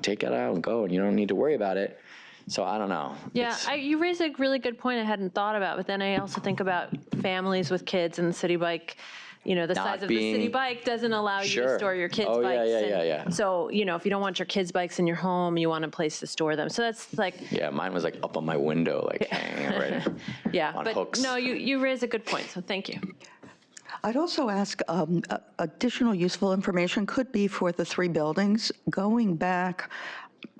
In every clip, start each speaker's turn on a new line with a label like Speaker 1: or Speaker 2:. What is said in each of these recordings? Speaker 1: take it out and go, and you don't need to worry about it. So I don't know.
Speaker 2: Yeah,
Speaker 1: It's-
Speaker 2: I, you raise a really good point I hadn't thought about, but then I also think about families with kids and the city bike. You know, the
Speaker 1: Not
Speaker 2: size of the city
Speaker 1: being-
Speaker 2: bike doesn't allow you to
Speaker 1: Sure.
Speaker 2: store your kids'
Speaker 1: Oh, yeah,
Speaker 2: bikes.
Speaker 1: yeah,
Speaker 2: and
Speaker 1: yeah, yeah.
Speaker 2: So, you know, if you don't want your kids' bikes in your home, you want a place to store them. So that's like,
Speaker 1: Yeah, mine was like up on my window, like hanging right.
Speaker 2: yeah.
Speaker 1: On
Speaker 2: but
Speaker 1: hooks.
Speaker 2: no, you, you raise a good point. So thank you.
Speaker 3: I'd also ask, um, a- additional useful information could be for the three buildings, going back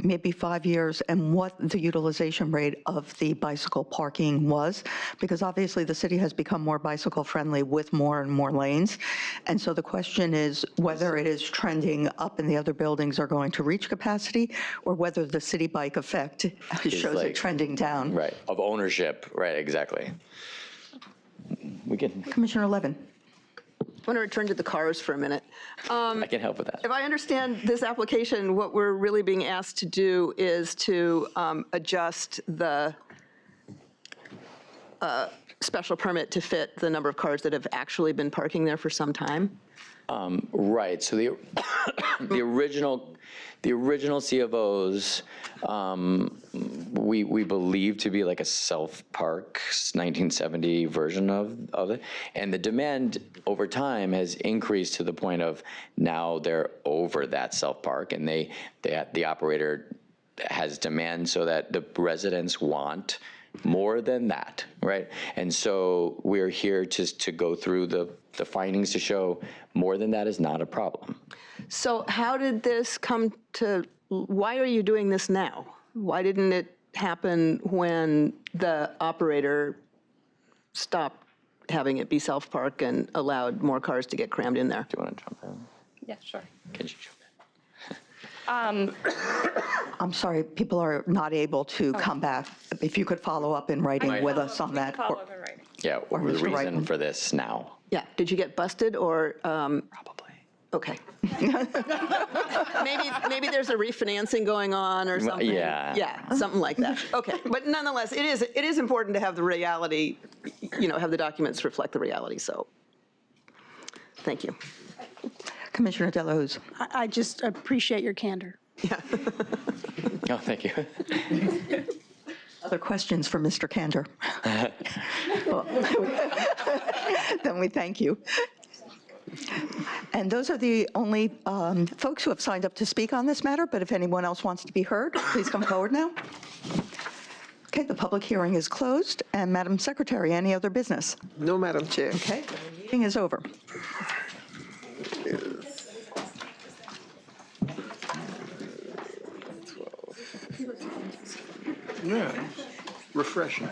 Speaker 3: maybe five years and what the utilization rate of the bicycle parking was, because obviously the city has become more bicycle-friendly with more and more lanes. And so the question is whether it is trending up and the other buildings are going to reach capacity, or whether the city bike effect shows
Speaker 1: like-
Speaker 3: it trending down.
Speaker 1: Right, of ownership, right, exactly. We can,
Speaker 3: Commissioner Levin?
Speaker 4: I want to return to the cars for a minute.
Speaker 1: I can help with that.
Speaker 4: Um, If I understand this application, what we're really being asked to do is to um, adjust the uh, special permit to fit the number of cars that have actually been parking there for some time.
Speaker 1: Right, so the, the original, the original CFOs, um, we, we believe to be like a self-park 1970 version of, of it. And the demand over time has increased to the point of now they're over that self-park and they, they, the operator has demand so that the residents want more than that, right? And so we're here to, to go through the, the findings to show more than that is not a problem.
Speaker 4: So how did this come to, why are you doing this now? Why didn't it happen when the operator stopped having it be self-park and allowed more cars to get crammed in there?
Speaker 1: Do you want to jump in?
Speaker 5: Yeah, sure.
Speaker 1: Can you jump in?
Speaker 3: I'm sorry, people are not able to come back. If you could follow up in writing with us on that.
Speaker 5: Follow
Speaker 3: or-
Speaker 5: up in writing.
Speaker 1: Yeah, or the
Speaker 3: Mr.
Speaker 1: reason
Speaker 3: Reitman.
Speaker 1: for this now.
Speaker 4: Yeah, did you get busted or, um,
Speaker 1: Probably.
Speaker 4: okay. Maybe, maybe there's a refinancing going on or something.
Speaker 1: yeah.
Speaker 4: Yeah, something like that. Okay, but nonetheless, it is, it is important to have the reality, you know, have the documents reflect the reality, so, thank you.
Speaker 3: Commissioner Delahoo's.
Speaker 6: I I just appreciate your candor.
Speaker 1: Oh, thank you.
Speaker 3: Other questions for Mr. Kander? Then we thank you. And those are the only um, folks who have signed up to speak on this matter, but if anyone else wants to be heard, please come forward now. Okay, the public hearing is closed, and Madam Secretary, any other business?
Speaker 7: No, Madam Chair.
Speaker 3: Okay, meeting is over.
Speaker 7: Yeah, refreshing.